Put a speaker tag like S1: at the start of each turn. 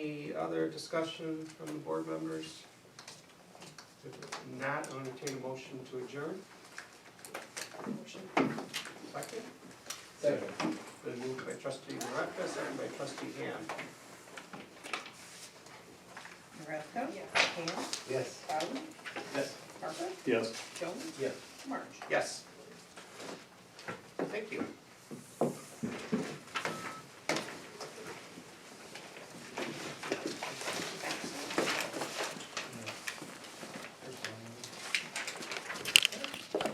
S1: other discussion from the board members? If not, I'll entertain a motion to adjourn. Motion. Second,
S2: Second.
S1: been moved by trustee Maravka, second by trustee Ham.
S3: Maravka? Yes. Ham?
S2: Yes.
S3: Bowden?
S2: Yes.
S3: Parker?
S4: Yes.
S3: Jones?
S2: Yes.
S3: March?
S1: Yes. Thank you.